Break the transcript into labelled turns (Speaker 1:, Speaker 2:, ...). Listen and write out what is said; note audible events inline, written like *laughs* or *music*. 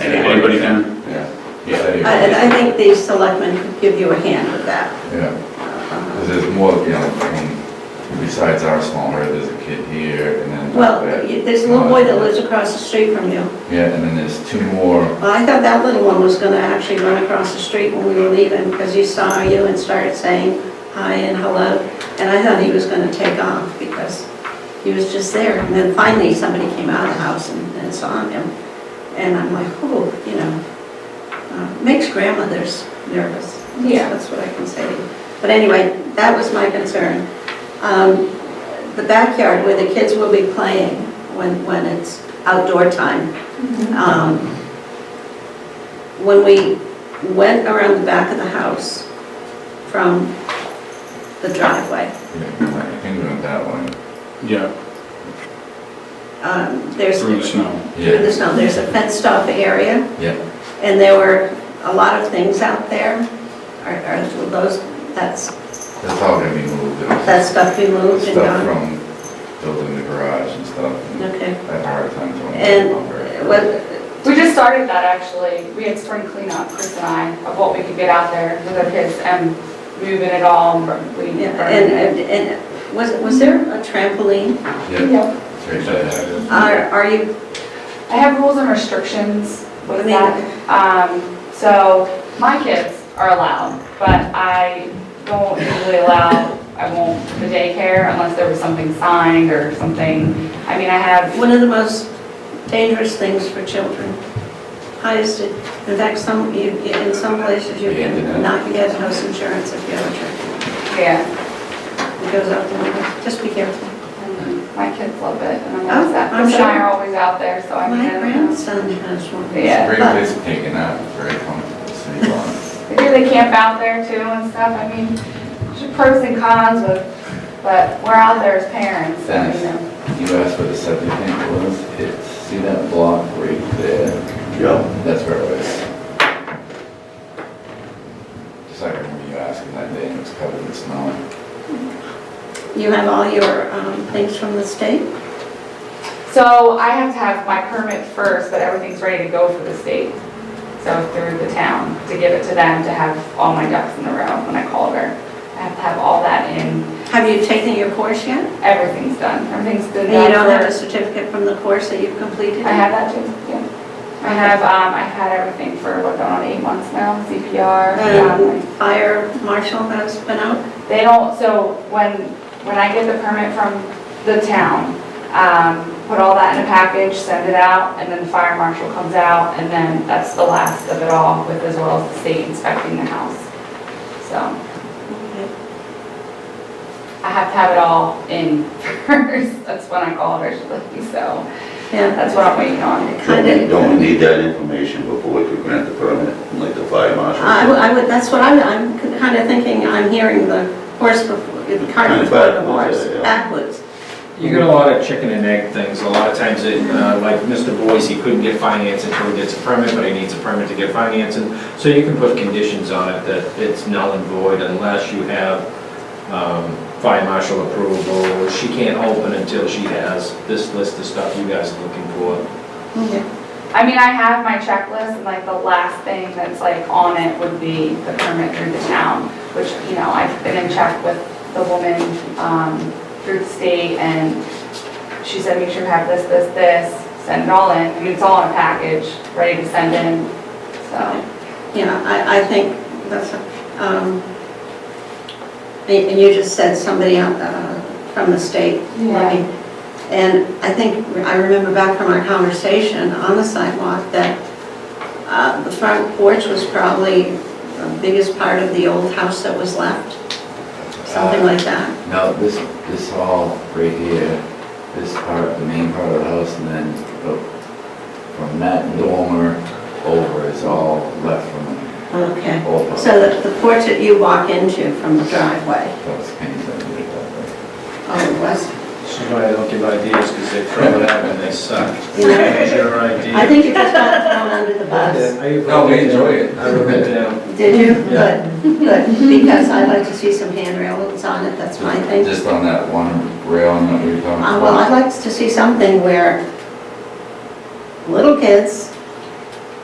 Speaker 1: Anybody can?
Speaker 2: Yeah.
Speaker 1: Yeah.
Speaker 3: I- And I think the selectmen could give you a hand with that.
Speaker 2: Yeah, because there's more, you know, I mean, besides our small herd, there's a kid here and then. Oh,
Speaker 3: Well, y- there's a little boy that lives across the street from you.
Speaker 2: Yeah, and then there's two more,
Speaker 3: Well, I thought that little one was gonna actually run across the street when we were leaving, because he saw you and started saying hi and hello, and I thought he was gonna take off, because he was just there, and then finally somebody came out of the house and, and saw him, and I'm like, oh, you know, uh, makes grandmothers nervous. That's-
Speaker 4: Yeah.
Speaker 3: That's what I can say. But anyway, that was my concern. Um, The backyard where the kids will be playing when, when it's outdoor time, um, When we went around the back of the house from the driveway,
Speaker 2: yeah, I think we went that one.
Speaker 1: Yeah,
Speaker 3: um, there's,
Speaker 1: through the
Speaker 3: through
Speaker 1: snow.
Speaker 3: the snow, there's a fenced off area,
Speaker 2: Yeah,
Speaker 3: and there were a lot of things out there. Are- Are those, that's,
Speaker 2: that's all gonna be moved. It was
Speaker 3: that stuff we moved and
Speaker 2: Stuff
Speaker 3: gone?
Speaker 2: from building the garage and stuff. and
Speaker 3: Okay.
Speaker 2: I have a hard time telling.
Speaker 3: And what,
Speaker 4: We just started that actually. We had spring cleanup, Chris and I, of what we could get out there with our kids and moving it all. and we-
Speaker 3: yeah, and, and- and was, was there a trampoline?
Speaker 2: Yeah.
Speaker 4: Yep.
Speaker 2: it's very bad.
Speaker 3: Are, are you,
Speaker 4: I have rules and restrictions
Speaker 3: I
Speaker 4: with
Speaker 3: mean-
Speaker 4: that. Um, so my kids are allowed, but I don't usually allow, I won't the daycare unless there was something signed or something. I mean, I have
Speaker 3: one of the most dangerous things for children. Highest, in fact, some, you- in some places you can not get house insurance if you have a trampoline.
Speaker 4: Yeah,
Speaker 3: It goes out the window, just be careful.
Speaker 4: and my kids love it, and I'm always
Speaker 3: Mm-hmm. Oh,
Speaker 4: out,
Speaker 3: I'm
Speaker 4: Chris and I
Speaker 3: sure.
Speaker 4: are always out there, so I mean,
Speaker 3: My
Speaker 4: I don't know.
Speaker 3: grandson has one.
Speaker 4: Yeah.
Speaker 2: Great
Speaker 3: But-
Speaker 2: place to take it out, very comfortable, sleep on it.
Speaker 4: They do, they camp out there too and stuff, I mean, there's pros and cons with, but we're out there as parents, so, you know.
Speaker 2: You asked where the septic tank was, it's, see that block right there?
Speaker 5: Yeah,
Speaker 2: That's where it was. Just like I remember you asking that day, and it was covered in snow.
Speaker 3: You have all your um, things from the state?
Speaker 4: So I have to have my permit first, but everything's ready to go for the state. So through the town, to give it to them, to have all my ducks in a row when I called her. I have to have all that in,
Speaker 3: Have you taken your course yet?
Speaker 4: everything's done, everything's been
Speaker 3: And
Speaker 4: done.
Speaker 3: you don't have
Speaker 4: for-
Speaker 3: a certificate from the course that you've completed?
Speaker 4: I have that too, yeah. I have, um, I've had everything for, what, going on eight months now, CPR. um,
Speaker 3: Um, Fire marshal has been out?
Speaker 4: They don't, so when, when I get the permit from the town, um, put all that in a package, send it out, and then the fire marshal comes out, and then that's the last of it all with as well as the state inspecting the house. So Mm-hmm.
Speaker 3: Okay.
Speaker 4: I have to have it all in *laughs* first, that's when I called her, she's like, so
Speaker 3: Yeah,
Speaker 4: that's what I'm waiting on.
Speaker 3: I
Speaker 5: we
Speaker 3: did.
Speaker 5: don't need that information before we could grant the permit, like the fire marshal.
Speaker 3: I would- I would, that's what I'm, I'm kind of thinking, I'm hearing the horse before, the cart
Speaker 5: Kind of
Speaker 3: before the
Speaker 5: backwards,
Speaker 3: horse,
Speaker 5: yeah, yeah.
Speaker 3: backwards.
Speaker 6: You get a lot of chicken and egg things. A lot of times, it, uh, like Mr. Boyce, he couldn't get finance until he gets a permit, but he needs a permit to get financing. So you can put conditions on it that it's null and void unless you have um, fire marshal approval. or She can't open until she has this list of stuff you guys are looking for.
Speaker 3: Okay.
Speaker 4: I mean, I have my checklist, and like the last thing that's like on it would be the permit through the town, which, you know, I've been in check with the woman, um, through the state, and she said, make sure you have this, this, this, send it all in, I mean, it's all in a package, ready to send in, so.
Speaker 3: Yeah, I, I think that's, um, and and you just said somebody out, uh, from the state. looking. And I think, I remember back from our conversation on the sidewalk that, uh, the front porch was probably the biggest part of the old house that was left,
Speaker 5: Uh,
Speaker 3: something like that.
Speaker 2: No, this, this hall right here, this part, the main part of the house, and then the- from that dormer over is all left from
Speaker 3: Okay.
Speaker 2: the old house.
Speaker 3: So the, the porch that you walk into from the driveway,
Speaker 2: That was Kenny's idea, that
Speaker 3: oh, it was,
Speaker 6: She's why I don't give ideas, because they throw it out and they
Speaker 3: *laughs*
Speaker 6: suck.
Speaker 3: you know,
Speaker 6: It's your idea.
Speaker 3: I think you just got thrown under the bus.
Speaker 6: I-
Speaker 2: No, we enjoy it.
Speaker 6: I wrote it down.
Speaker 3: Did you?
Speaker 6: Yeah.
Speaker 3: Good, good, because I'd like to see some handrails on it, that's my
Speaker 2: way.
Speaker 3: thing. Uh,
Speaker 2: Just on that one rail that we were talking about.
Speaker 3: Well, I'd like to see something where little kids